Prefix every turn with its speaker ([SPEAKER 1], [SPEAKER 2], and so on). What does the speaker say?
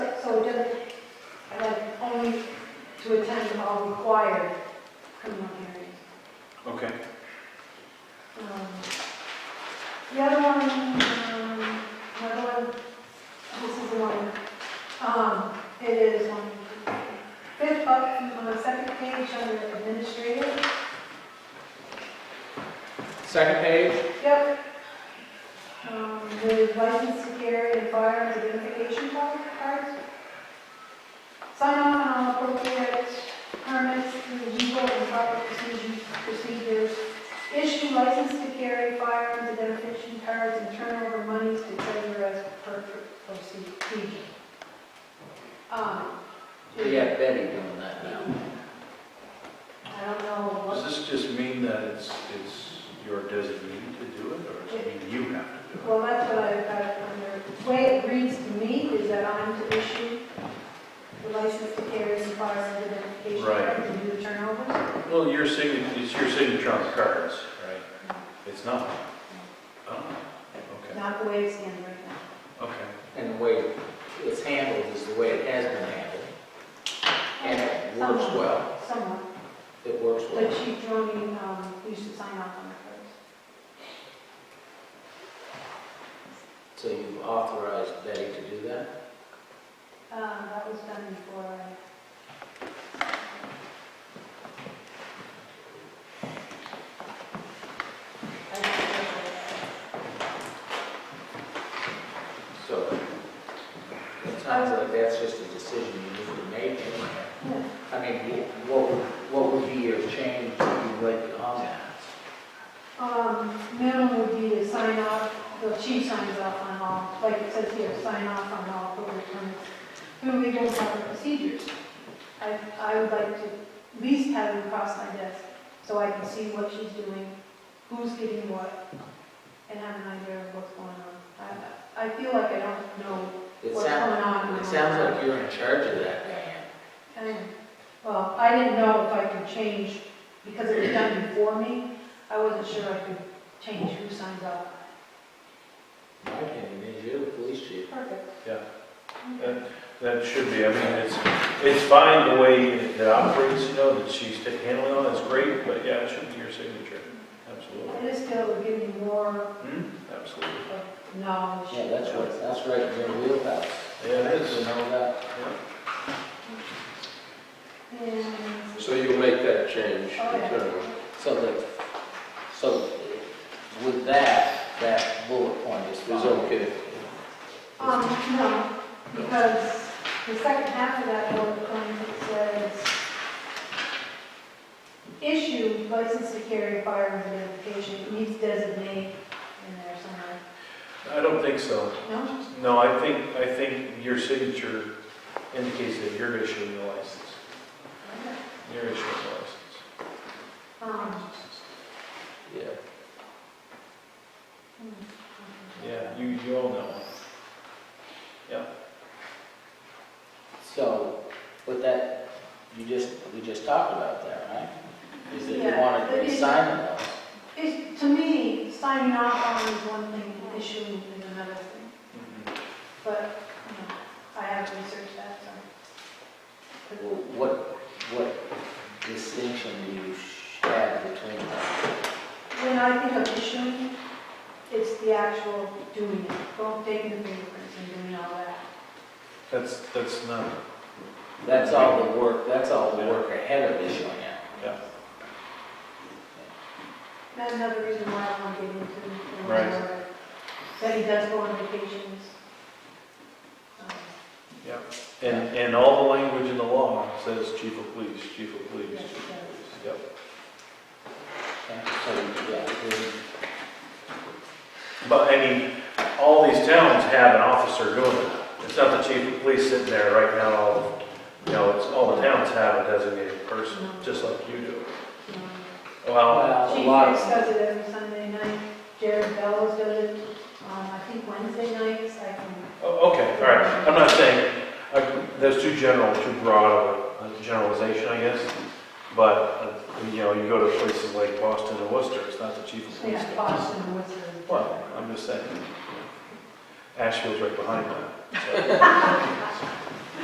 [SPEAKER 1] all required criminal hearings.
[SPEAKER 2] Okay.
[SPEAKER 1] Um, The other one, um, another one, this is the one, um, it is on fifth up, on the second page under administrative.
[SPEAKER 3] Second page,
[SPEAKER 1] Yep. Um, The license to carry and firearms identification card- cards. Sign off on all appropriate permits through legal and proper procedures- procedures. Issue license to carry firearms identification cards and turn over monies to treasurer as per procedure. Um,
[SPEAKER 4] We have Betty doing that now.
[SPEAKER 1] I don't know what.
[SPEAKER 2] Does this just mean that it's, it's your designee to do it, or does it mean you have to do it?
[SPEAKER 1] Well, that's what I've got under, the way it reads to me is that I'm to issue the license to carry and fire identification
[SPEAKER 2] Right.
[SPEAKER 1] card and do the turnovers.
[SPEAKER 2] Well, your signature, it's your signature on the cards, right? It's not? Oh, okay,
[SPEAKER 1] Not the way it stands right now.
[SPEAKER 2] okay.
[SPEAKER 4] And the way it's handled is the way it has been handled. And it works
[SPEAKER 1] Somewhat,
[SPEAKER 4] well.
[SPEAKER 1] Somewhat,
[SPEAKER 4] It works
[SPEAKER 1] but
[SPEAKER 4] well.
[SPEAKER 1] Chief Joni, um, used to sign off on it first.
[SPEAKER 4] So you've authorized Betty to do that?
[SPEAKER 1] Um, that was done before I. I don't know.
[SPEAKER 4] So it sounds like that's just a decision you need to make. anyway. I mean, what, would- what would be your change that you would on that?
[SPEAKER 1] Um, minimum would be to sign off, the chief signs off on all, like it says here, sign off on all appropriate permits. Then we don't have the procedures. I, I would like to at least have them cross my desk, so I can see what she's doing, who's getting what, and have an idea of what's going on. I, I feel like I don't know
[SPEAKER 4] It
[SPEAKER 1] what's going
[SPEAKER 4] sounds,
[SPEAKER 1] on.
[SPEAKER 4] it sounds like you're in charge of that, Diane.
[SPEAKER 1] And, well, I didn't know if I could change, because it was done before me, I wasn't sure I could change who signs off.
[SPEAKER 4] My opinion is you're the police chief.
[SPEAKER 1] Perfect.
[SPEAKER 2] Yeah. That should be, I mean, it's, it's fine the way it operates, you know, that she's handling all, that's great, but yeah, it should be your signature, absolutely.
[SPEAKER 1] I just feel it would give me more
[SPEAKER 2] Hmm, Absolutely.
[SPEAKER 1] of knowledge.
[SPEAKER 4] Yeah, that's what, that's right in your wheelhouse.
[SPEAKER 2] Yeah, it
[SPEAKER 4] You
[SPEAKER 2] is.
[SPEAKER 4] know that?
[SPEAKER 1] And-
[SPEAKER 5] So you'll make that change
[SPEAKER 1] Oh, yeah.
[SPEAKER 5] internally?
[SPEAKER 4] So the, so with that, that bullet point is fine.
[SPEAKER 5] Is okay?
[SPEAKER 1] Um, no, because the second half of that bullet point it says, issue license to carry firearms identification, it needs designate in there somewhere.
[SPEAKER 2] I don't think so.
[SPEAKER 1] No?
[SPEAKER 2] No, I think, I think your signature indicates that you're issuing the license. You're issuing the
[SPEAKER 1] Um,
[SPEAKER 2] license.
[SPEAKER 5] Yeah.
[SPEAKER 1] hmm,
[SPEAKER 2] Yeah, you, you all know.
[SPEAKER 4] So with that, you just, we just talked about that, right? Is that you
[SPEAKER 1] Yeah,
[SPEAKER 4] wanted
[SPEAKER 1] but
[SPEAKER 4] to
[SPEAKER 1] it's-
[SPEAKER 4] assign it those.
[SPEAKER 1] It's, to me, signing off on is one thing, issuing is another thing.
[SPEAKER 2] Mm-hmm.
[SPEAKER 1] But, you know, I haven't researched that, so.
[SPEAKER 4] What, what distinction do you have between them?
[SPEAKER 1] When I think of issuing, it's the actual doing it, going, taking the fingerprints and doing all that.
[SPEAKER 2] That's, that's not,
[SPEAKER 4] That's all the work, that's all the work ahead of issuing it.
[SPEAKER 2] yeah.
[SPEAKER 1] That's another reason why I want to get into the
[SPEAKER 2] Right.
[SPEAKER 1] lawyer, that he does go on vacations. Um,
[SPEAKER 2] And, and all the language in the law says chief of police, chief of police,
[SPEAKER 1] Yes, it
[SPEAKER 2] chief of
[SPEAKER 1] does.
[SPEAKER 2] police. Yep.
[SPEAKER 4] Okay, So, yeah, we-
[SPEAKER 2] But, I mean, all these towns have an officer doing it. It's not the chief of police sitting there right now, all, you know, it's, all the towns have a designated person, just like you do.
[SPEAKER 1] you know.
[SPEAKER 2] Well,
[SPEAKER 4] Well, a
[SPEAKER 1] Chief
[SPEAKER 4] lot
[SPEAKER 1] Hicks
[SPEAKER 4] of,
[SPEAKER 1] does it every Sunday night, Jared Bellows does it, um, I think Wednesday nights, I can
[SPEAKER 2] o- Oh, okay, all right, I'm not saying, I- that's too general, too broad of a generalization, I guess. But, uh, you know, you go to places like Boston and Worcester, it's not the chief of police.
[SPEAKER 1] Yeah,
[SPEAKER 2] that does it.
[SPEAKER 1] Boston Woods is.
[SPEAKER 2] Well, I'm just saying, Asheville's right behind that. so.